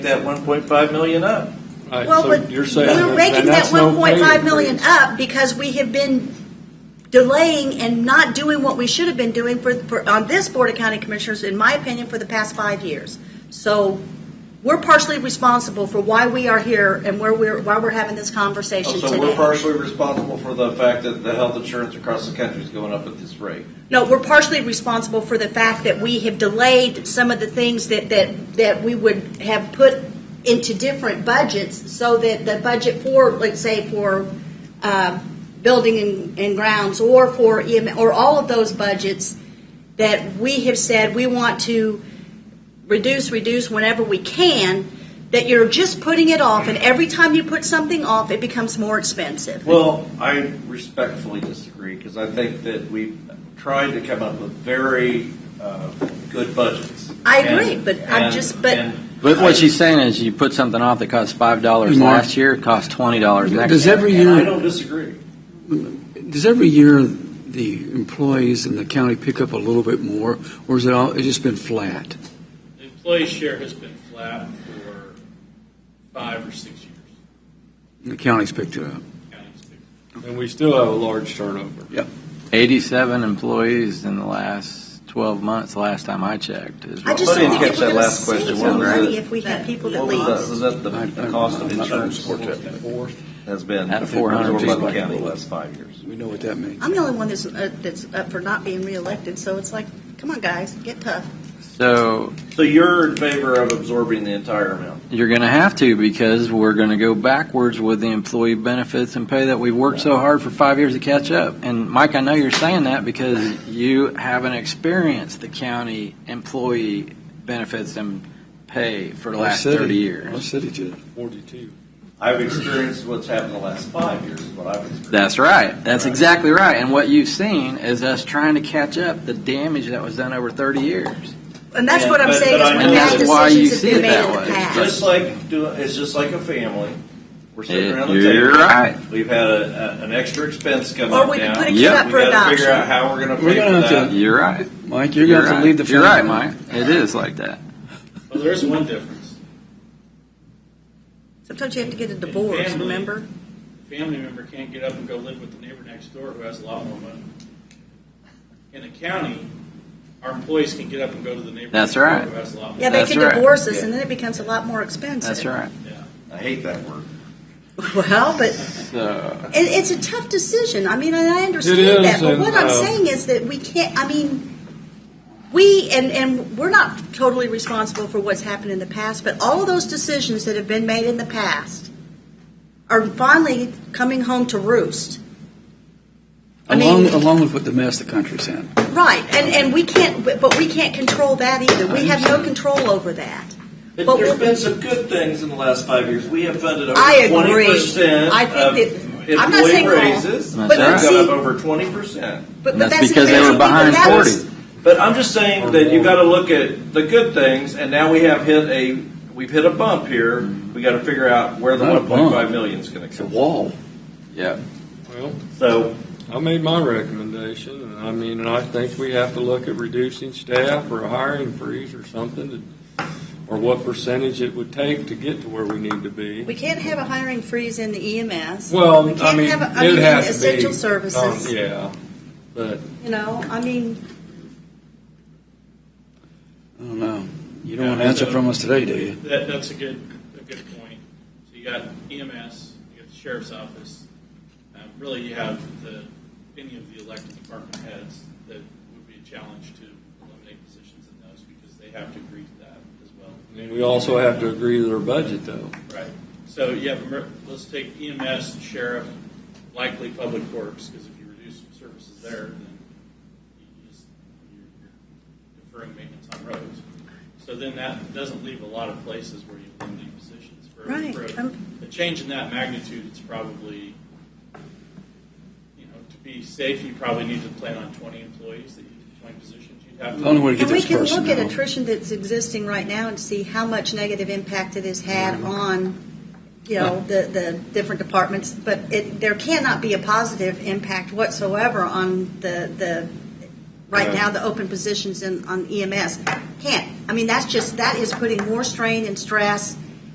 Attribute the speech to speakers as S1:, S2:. S1: that one point five million up.
S2: All right,
S3: Well,
S2: so
S3: but
S2: you're saying
S3: we're raking that
S2: that's no
S3: one point five
S2: pay
S3: million
S2: increase.
S3: up because we have been delaying and not doing what we should have been doing for, for, on this Board of County Commissioners, in my opinion, for the past five years. So we're partially responsible for why we are here and where we're, why we're having this
S2: Oh,
S3: conversation
S4: So we're
S3: today.
S4: partially responsible for the fact that the health insurance across the country is going up at this rate.
S3: No, we're partially responsible for the fact that we have delayed some of the things that, that, that we would have put into different budgets so that the budget for, let's say, for uh, building and, and grounds or for EM, or all of those budgets that we have said we want to reduce, reduce whenever we can, that you're just putting it off, and every time you put something off, it becomes more expensive.
S4: Well, I respectfully disagree because I think that we've tried to come up with very uh, good budgets.
S3: I agree,
S4: And-
S3: but I'm
S4: and-
S3: just- but-
S4: and
S5: But what she's saying is you put something off that cost five dollars
S6: Mark,
S5: last year, it costs twenty dollars next year.
S6: does every
S4: and I
S6: year,
S4: don't disagree.
S6: does every year the employees in the county pick up a little bit more, or is it all, it's just been flat?
S7: The employee share has been flat for five or six years.
S6: The county's picked it up.
S7: County's been-
S2: And we still have a large turnover.
S5: Eighty-seven employees in the last twelve months, last time I checked. is
S3: I
S5: what-
S3: just
S4: I
S3: don't
S4: didn't
S3: think
S4: catch that
S3: that we're going to
S4: last
S3: save
S4: question.
S3: some
S4: What was
S3: money
S4: it?
S3: if we have people that
S4: What was
S3: leave.
S4: that? Was that the,
S6: I-
S4: the
S6: I-
S4: cost of
S6: I'm not gonna
S4: insurance
S6: support that.
S4: has been
S5: At 400
S4: absorbed by the
S5: people.
S4: county the last five years?
S6: We know what that means.
S3: I'm the only one that's, uh, that's up for not being reelected, so it's like, come on, guys, get tough.
S5: So
S4: So you're in favor of absorbing the entire amount?
S5: you're going to have to because we're going to go backwards with the employee benefits and pay that we've worked so hard for five years to catch up. And Mike, I know you're saying that because you haven't experienced the county employee benefits and pay for the
S6: Our
S5: last
S6: city-
S5: thirty
S6: Our
S5: years.
S6: city did.
S2: Forty-two.
S4: I've experienced what's happened the last five years. Is what I've experienced.
S5: That's right. That's
S4: Right.
S5: exactly right. And what you've seen is us trying to catch up the damage that was done over 30 years.
S3: And that's
S4: Yeah,
S3: what I'm
S4: but-
S3: saying
S4: but I
S3: is when
S4: know
S3: bad
S4: that's why
S5: you
S3: decisions have
S5: see
S3: been
S5: it
S3: made
S5: that
S3: in
S5: way.
S3: the past.
S4: Just like doing, it's just like a family. We're sitting
S5: Yeah,
S4: around the table.
S5: you're right.
S4: We've had a, a, an extra expense come
S3: Or
S4: up
S3: we could
S4: now.
S3: put a
S5: kid
S3: up for
S4: we gotta figure
S3: adoption.
S4: out how we're going to
S6: We're
S4: pay for
S6: gonna have
S4: that.
S5: You're right.
S6: Mike, you're going to have
S5: right.
S6: to lead the.
S5: You're right,
S6: front.
S5: Mike. It is like that.
S7: Well, there is one difference.
S3: Sometimes you have to get a divorce,
S7: Family.
S3: remember?
S7: A Family member can't get up and go live with the neighbor next door who has a lot more money. In the county, our employees can get up and go to the neighbor
S5: That's
S7: next door
S5: right.
S7: who has a lot more
S3: Yeah, they
S5: That's
S3: can
S5: right.
S3: divorce us,
S5: Yeah.
S3: and then it becomes a lot more expensive.
S5: That's right.
S7: Yeah.
S4: I hate that word.
S3: Well, but
S5: So,
S3: it, it's a tough decision. I mean, and I understand
S2: is,
S3: that, but
S2: and,
S3: what I'm
S2: uh,
S3: saying is that we can't. I mean, we and and we're not totally responsible for what's happened in the past, but all of those decisions that have been made in the past are finally coming home to roost. I
S6: Along,
S3: mean-
S6: along with what the mess the country's in.
S3: Right, and and we can't, but but we can't control that either. We have no control over that.
S4: But
S3: But
S4: there's
S3: we-
S4: been some good things in the last five years. We have funded over
S3: I
S4: twenty
S3: agree.
S4: percent
S3: I think
S4: of
S3: that-
S4: employee
S3: I'm not saying all,
S4: raises.
S3: but
S5: That's
S4: We've gone
S5: right.
S4: up
S3: see-
S4: over twenty percent.
S3: But, but
S5: and that's,
S3: the
S5: because they
S3: crazy
S5: were
S3: thing,
S5: behind
S3: that
S5: 40.
S3: was-
S4: But I'm just saying that you got to look at the good things, and now we have hit a we've hit a bump here. We got to figure out where the
S6: Not a
S4: one
S6: bump.
S4: point five million is going to
S6: It's a
S4: come.
S6: wall.
S5: yeah.
S2: Well,
S4: So
S2: I made my recommendation, and I mean, and I think we have to look at reducing staff or a hiring freeze or something, to- or what percentage it would take to get to where we need to be.
S3: We can't have a hiring freeze in the EMS.
S2: Well,
S3: we
S2: I
S3: can't
S2: mean,
S3: have a, I
S2: it'd
S3: mean,
S2: have to be.
S3: essential
S2: um,
S3: services.
S2: Yeah, but
S3: You know, I mean,
S6: I don't know. You don't want an answer from us today, do you?
S7: That, that's a good, a good point. So you got EMS, you got the sheriff's office. Um, really, you have the, any of the elected department heads that would be a challenge to eliminate positions in those because they have to agree to that as well.
S2: I mean, we also have to agree to their budget, though.
S7: Right. So you have, emer- let's take EMS, sheriff, likely public works, because if you reduce services there, then you just, you're you're deferring maintenance on roads. So then that doesn't leave a lot of places where you eliminate positions. For-
S3: Right.
S7: for a-
S3: Um,
S7: A change in that magnitude, it's probably, you know, to be safe, you probably need to plan on twenty employees, that you, twenty positions you'd have. to-
S6: The only way to get
S3: and we
S6: this
S3: can
S6: person
S3: look at
S6: out.
S3: attrition that's existing right now and see how much negative impact it has
S6: Mm-hmm.
S3: had on, you know, the, the different departments. But it, there cannot be a positive impact whatsoever on the, the, right
S2: Yeah.
S3: now, the E open positions in, on EMS. Can't. I mean, that's just, that is putting more strain and stress